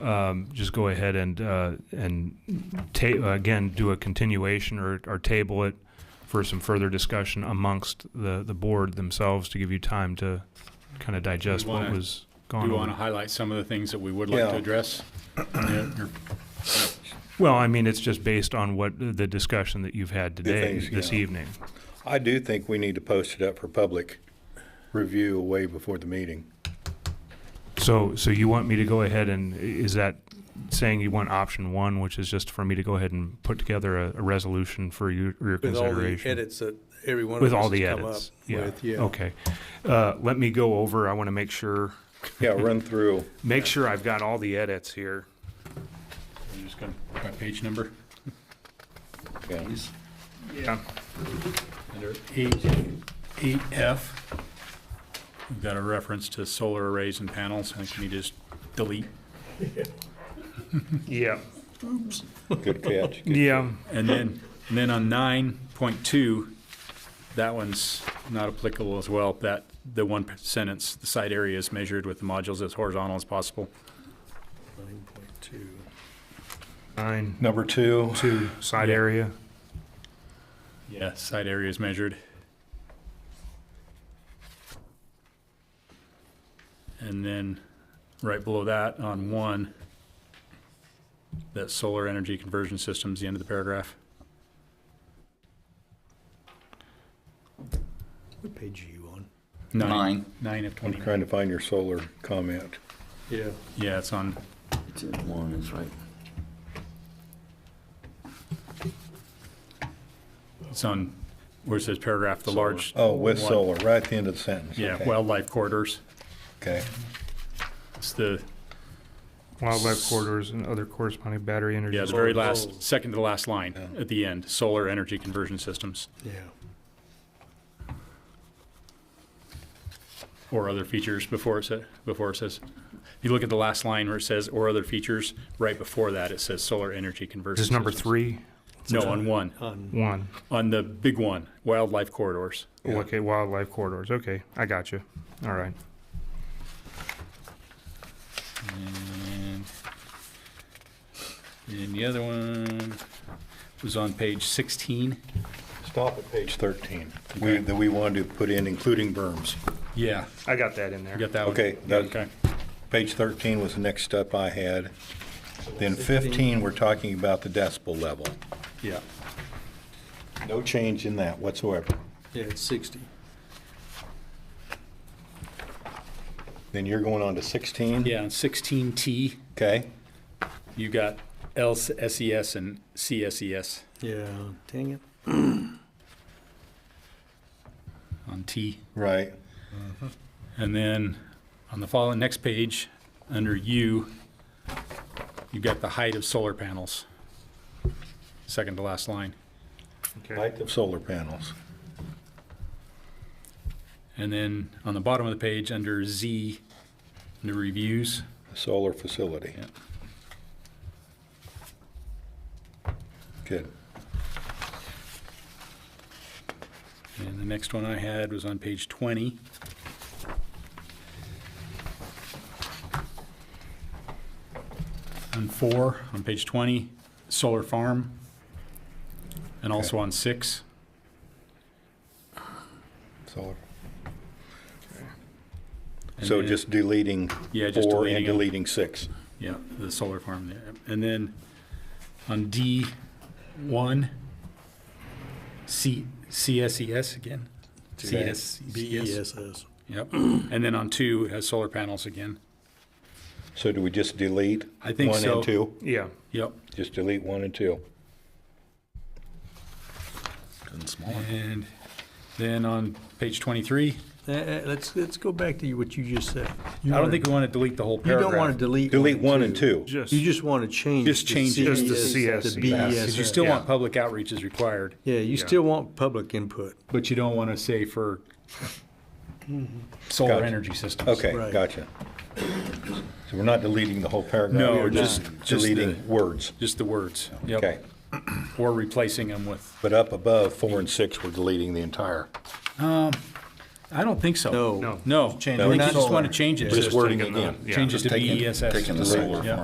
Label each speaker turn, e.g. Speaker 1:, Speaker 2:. Speaker 1: um, just go ahead and, uh, and ta, again, do a continuation or, or table it for some further discussion amongst the, the board themselves to give you time to kind of digest what
Speaker 2: wanna-
Speaker 1: was
Speaker 2: Do
Speaker 1: gone
Speaker 2: you want to
Speaker 1: on.
Speaker 2: highlight some of the things that we would like to
Speaker 3: Yeah.
Speaker 2: address? Yeah, you're-
Speaker 1: Well, I mean, it's just based on what the discussion that you've had today,
Speaker 3: things,
Speaker 1: this
Speaker 3: yeah.
Speaker 1: evening.
Speaker 3: I do think we need to post it up for public review way before the meeting.
Speaker 1: So, so you want me to go ahead and, i- is that saying you want option one, which is just for me to go ahead and put together a, a resolution for you, your
Speaker 4: With all the
Speaker 1: consideration?
Speaker 4: edits that every one of
Speaker 1: With all
Speaker 4: us
Speaker 1: the
Speaker 4: has come up.
Speaker 1: edits? Yeah,
Speaker 4: with.
Speaker 1: okay. Uh, let me go over, I want to make sure,
Speaker 3: Yeah, run through.
Speaker 1: make sure I've got all the edits here.
Speaker 2: you're just gonna- My page number,
Speaker 3: Yeah.
Speaker 1: Yeah.
Speaker 2: under E, EF. We've got a reference to solar arrays and panels. I think we need to just delete.
Speaker 1: Yeah,
Speaker 3: Good catch. Good-
Speaker 1: yeah,
Speaker 2: And then, and then on nine point two, that one's not applicable as well. That, the one sentence, the site area is measured with the modules as horizontal as possible.
Speaker 4: Nine point two.
Speaker 1: nine,
Speaker 3: Number two,
Speaker 1: two, side area.
Speaker 2: Yeah, side area is measured. And then, right below that, on one, that solar energy conversion system's the end of the paragraph.
Speaker 4: What page are you on?
Speaker 5: Nine.
Speaker 2: Nine of
Speaker 3: I'm
Speaker 2: twenty.
Speaker 3: trying to find your solar comment.
Speaker 4: Yeah.
Speaker 2: Yeah, it's on,
Speaker 5: It's in one, that's right.
Speaker 2: it's on, where it says paragraph, the large.
Speaker 3: Oh, with
Speaker 2: one-
Speaker 3: solar, right at the end of the sentence.
Speaker 2: Yeah,
Speaker 3: Okay.
Speaker 2: wildlife corridors.
Speaker 3: Okay.
Speaker 2: It's the,
Speaker 1: Wildlife corridors and other corresponding battery energy.
Speaker 2: yeah, the very
Speaker 4: Oh.
Speaker 2: last, second to the last line
Speaker 3: Yeah.
Speaker 2: at the end, solar energy conversion systems
Speaker 4: Yeah.
Speaker 2: or other features before it says, before it says. If you look at the last line where it says or other features, right before that, it says solar energy conversion.
Speaker 1: This is number
Speaker 2: systems.
Speaker 1: three,
Speaker 2: No, on one,
Speaker 4: On,
Speaker 1: one.
Speaker 2: on the big one, wildlife corridors.
Speaker 3: Yeah.
Speaker 1: Okay, wildlife corridors. Okay, I got you. All right.
Speaker 2: And and the other one was on page sixteen.
Speaker 3: Stop at page 13. We, that we wanted to put in including berms.
Speaker 2: Yeah,
Speaker 1: I got that in
Speaker 2: you
Speaker 1: there.
Speaker 2: got that one.
Speaker 3: Okay,
Speaker 2: Yeah,
Speaker 3: that-
Speaker 2: Okay.
Speaker 3: Page 13 was the next step I had. Then 15, we're talking about the decibel level.
Speaker 2: Yeah.
Speaker 3: No change in that whatsoever.
Speaker 4: yeah, it's sixty.
Speaker 3: Then you're going on to 16?
Speaker 2: Yeah, on sixteen T,
Speaker 3: Okay.
Speaker 2: you got LSES and E CSES
Speaker 4: Yeah, dang it.
Speaker 2: on T.
Speaker 3: Right.
Speaker 2: And then on the following, next page, under U, you've got the height of solar panels. Second to last line.
Speaker 1: Okay.
Speaker 3: Height of solar panels.
Speaker 2: And then on the bottom of the page, under Z, under reviews,
Speaker 3: Solar facility.
Speaker 2: Yeah.
Speaker 3: Good.
Speaker 2: and the next one I had was on page 20. On four, on page 20, solar farm, and also on six.
Speaker 3: Solar.
Speaker 2: And
Speaker 3: So
Speaker 2: then-
Speaker 3: just deleting
Speaker 2: Yeah, just
Speaker 3: four and
Speaker 2: deleting 'em.
Speaker 3: deleting six.
Speaker 2: Yeah, the solar farm there. And then on D one, C, CSES again.
Speaker 3: Okay.
Speaker 4: B E
Speaker 2: CSES.
Speaker 4: S S.
Speaker 2: Yep. And then on two, it has solar panels again.
Speaker 3: So do we just delete?
Speaker 2: I think
Speaker 3: One
Speaker 2: so.
Speaker 3: and two?
Speaker 1: Yeah.
Speaker 2: Yep.
Speaker 3: Just delete one and two.
Speaker 2: And then on page twenty-three,
Speaker 4: Uh, uh, let's, let's go back to what you just said.
Speaker 2: I don't think we want to delete the whole
Speaker 4: You
Speaker 2: paragraph.
Speaker 4: don't want to delete.
Speaker 3: Delete one and two.
Speaker 1: Just,
Speaker 4: You just want to change.
Speaker 2: Just
Speaker 4: the
Speaker 2: change it.
Speaker 1: Just the
Speaker 4: CS,
Speaker 1: CS.
Speaker 4: The B E S
Speaker 2: Because
Speaker 4: S.
Speaker 2: you still want public outreach is required,
Speaker 4: Yeah, you
Speaker 1: Yeah.
Speaker 4: still want public input.
Speaker 2: but you don't want to say for solar
Speaker 4: Mm-hmm.
Speaker 3: Gotcha.
Speaker 2: energy systems.
Speaker 3: Okay,
Speaker 4: Right.
Speaker 3: gotcha. So we're not deleting the whole paragraph?
Speaker 2: No,
Speaker 3: we're
Speaker 2: just- just the-
Speaker 3: Deleting words.
Speaker 2: Just the words. Yep.
Speaker 3: Okay.
Speaker 2: Or replacing them with
Speaker 3: But up above, four and six, we're deleting the entire.
Speaker 2: I don't think so.
Speaker 4: No.
Speaker 1: No.
Speaker 2: No, I
Speaker 3: We're
Speaker 2: think you
Speaker 3: not-
Speaker 2: just want to change it.
Speaker 3: Just
Speaker 2: to-
Speaker 3: wording
Speaker 1: taking the-
Speaker 3: again.
Speaker 1: yeah.
Speaker 2: Change it to E
Speaker 3: Just taking-
Speaker 2: BESS.
Speaker 5: taking the solar
Speaker 2: Yeah.